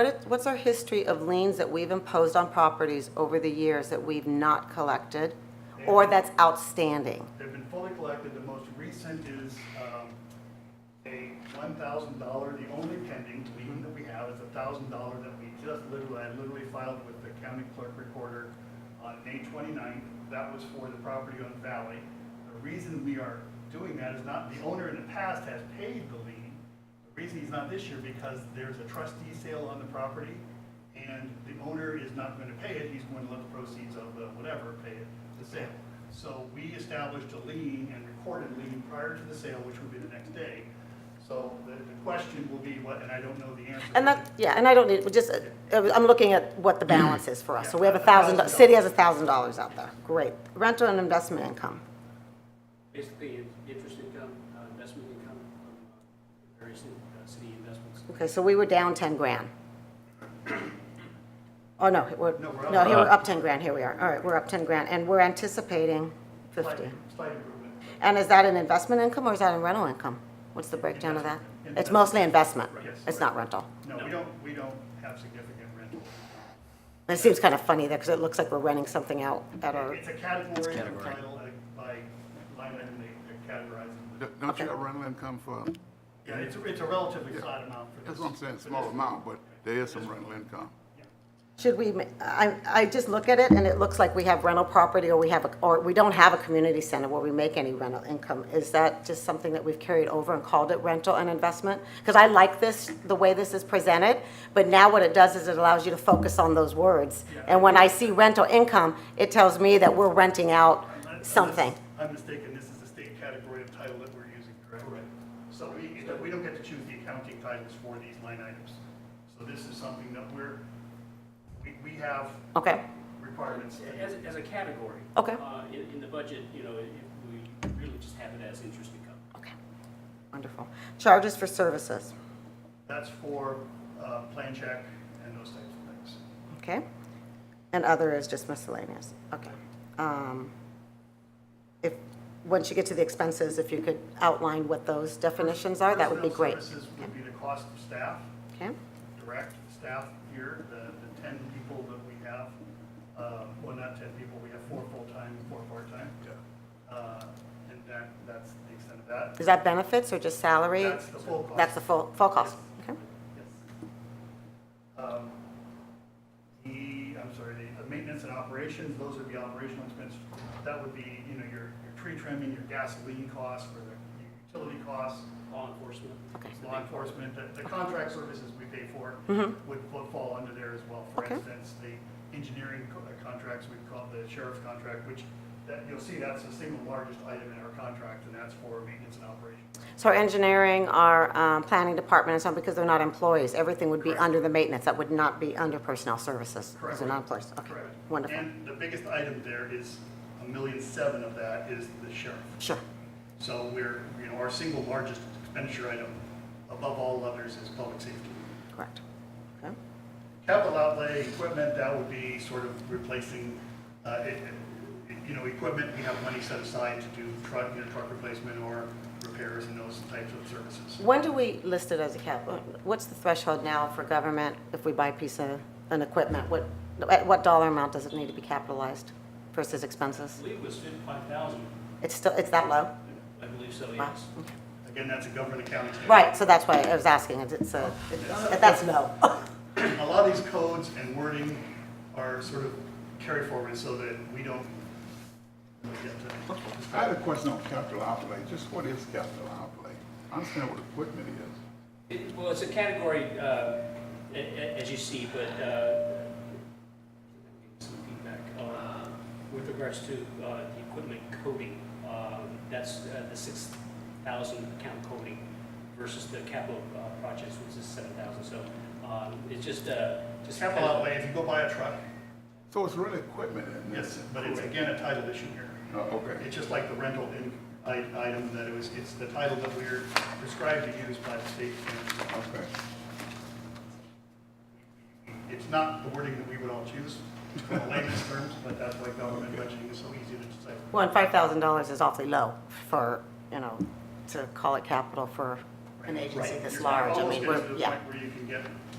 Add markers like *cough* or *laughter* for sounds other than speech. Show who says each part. Speaker 1: What is- What's our history of liens that we've imposed on properties over the years that we've not collected or that's outstanding?
Speaker 2: They've been fully collected. The most recent is um, a $1,000, the only pending lien that we have is a $1,000 that we just literally, I literally filed with the county clerk recorder on May 29th. That was for the property on Valley. The reason we are doing that is not, the owner in the past has paid the lien. The reason he's not this year because there's a trustee sale on the property and the owner is not going to pay it, he's going to let the proceeds of the whatever pay it, the sale. So we established a lien and recorded lien prior to the sale, which would be the next day. So the, the question will be what, and I don't know the answer.
Speaker 1: And that, yeah, and I don't need, we just, uh, I'm looking at what the balance is for us. So we have a
Speaker 2: Yeah,
Speaker 1: thousand, do-
Speaker 2: $1,000.
Speaker 1: city has a thousand dollars out there. Great. Rental and investment income.
Speaker 3: Basically, in- interest income, uh, investment income from uh, various uh, city investments.
Speaker 1: Okay, so we were down ten grand. Oh, no, we're,
Speaker 2: No, we're up.
Speaker 1: no, here we're up ten grand, here we are. All right, we're up ten grand and we're anticipating
Speaker 2: Slight-
Speaker 1: fifty.
Speaker 2: Slight improvement.
Speaker 1: And is that an investment income or is that a rental income? What's the breakdown of that? It's
Speaker 2: Investment.
Speaker 1: mostly investment.
Speaker 2: Yes.
Speaker 1: It's not rental.
Speaker 2: No, we don't, we don't have significant rental.
Speaker 1: It seems kind of funny there because it looks like we're renting something out at our,
Speaker 2: It's a category, they're titled by line item, they- they're categorized.
Speaker 4: Don't- Don't you have rental income for,
Speaker 2: Yeah, it's, a- it's a relatively flat amount for this.
Speaker 4: that's what I'm saying,
Speaker 2: for
Speaker 4: small
Speaker 2: this.
Speaker 4: amount, but there is some rental income.
Speaker 1: should we, ma- I, I just look at it and it looks like we have rental property or we have, a or we don't have a community center where we make any rental income. Is that just something that we've carried over and called it rental and investment? Because I like this, the way this is presented, but now what it does is it allows you to focus on those words. And when I see rental income, it tells me that we're renting out
Speaker 2: Unless
Speaker 1: something.
Speaker 2: I'm mistaken, this is a state category of title that we're using, correct? So we, we don't get to choose the accounting titles for these line items. So this is something that we're, we, we have
Speaker 1: Okay,
Speaker 2: requirements. that-
Speaker 3: As, as a category.
Speaker 1: Okay.
Speaker 3: uh, In, in the budget, you know, if we really just have it as interest income.
Speaker 1: okay, wonderful. Charges for services.
Speaker 2: That's for, uh, plan check and those types of things.
Speaker 1: Okay. And other is just miscellaneous, okay. Um, If, once you get to the expenses, if you could outline what those definitions are, that would be
Speaker 2: Personnel
Speaker 1: great.
Speaker 2: Services would be the cost of staff.
Speaker 1: Okay,
Speaker 2: direct staff here, the, the ten people that we have, uh, well, not ten people, we have four full-time, and four part-time. Uh, and that, that's the extent of that.
Speaker 1: is that benefits or just salary?
Speaker 2: That's the full cost.
Speaker 1: That's the full, full cost, okay?
Speaker 2: Yes. Um, The, I'm sorry, the the maintenance and operations, those would be operational expenses. That would be, you know, your, your tree trimming, your gasoline costs, or the utility costs,
Speaker 3: Law enforcement.
Speaker 1: Okay.
Speaker 2: law enforcement, the, the contract services we pay for would, would fall under there as well. For
Speaker 1: Mm-hmm. Okay.
Speaker 2: instance, the engineering co- uh, contracts, we call the sheriff's contract, which, that, you'll see that's the single largest item in our contract, and that's for maintenance and operation.
Speaker 1: So our engineering, our um, planning department and so on, because they're not employees, everything would be under the maintenance, that would not be under personnel services. Because they're not employees, okay,
Speaker 2: Correct.
Speaker 1: wonderful,
Speaker 2: And the biggest item there is, a million seven of that is the sheriff.
Speaker 1: sure.
Speaker 2: So we're, you know, our single largest expenditure item above all others is public safety.
Speaker 1: Correct. Okay.
Speaker 2: Capital outlay, equipment, that would be sort of replacing, uh, it- it- you know, equipment, we have money set aside to do truck, you know, truck replacement or repairs and those types of services.
Speaker 1: When do we list it as a cap? What's the threshold now for government if we buy a piece of, an equipment? What, at what dollar amount does it need to be capitalized versus
Speaker 3: I
Speaker 1: expenses?
Speaker 3: believe it was fifty-five thousand,
Speaker 1: It's still, it's that low?
Speaker 3: I believe so,
Speaker 1: Wow.
Speaker 3: yes.
Speaker 2: Again, that's a government accounting standard.
Speaker 1: Right, so that's why I was asking, it's- it's, a- it's- that's low. *laughs*
Speaker 2: A lot of these codes and wording are sort of carry forward so that we don't really get to.
Speaker 4: I had a question on capital outlay, just what is capital outlay? I understand what equipment is.
Speaker 3: It- Well, it's a category, uh, a- a- as you see, but uh, some feedback uh, with regards to uh, the equipment coding. um, That's uh, the 6,000 account coding versus the capital uh, projects, which is 7,000. So um, it's just, uh, just.
Speaker 2: Capital outlay, if you go buy a truck,
Speaker 4: So it's really equipment in this?
Speaker 2: yes, but it's again a title issue here.
Speaker 4: Oh, okay.
Speaker 2: It's just like the rental in- i- item that it was, it's the title that we're prescribed to use by the state.
Speaker 4: Okay.
Speaker 2: It's not the wording that we would all choose in the layman's terms, but that's why government budgeting is so easy to decipher.
Speaker 1: Well, and five thousand dollars is awfully low for, you know, to call it capital for an agency
Speaker 2: Right.
Speaker 1: this
Speaker 2: You're
Speaker 1: large. I mean,
Speaker 2: almost getting
Speaker 1: we're,
Speaker 2: to the
Speaker 1: yeah.
Speaker 2: point Where you can get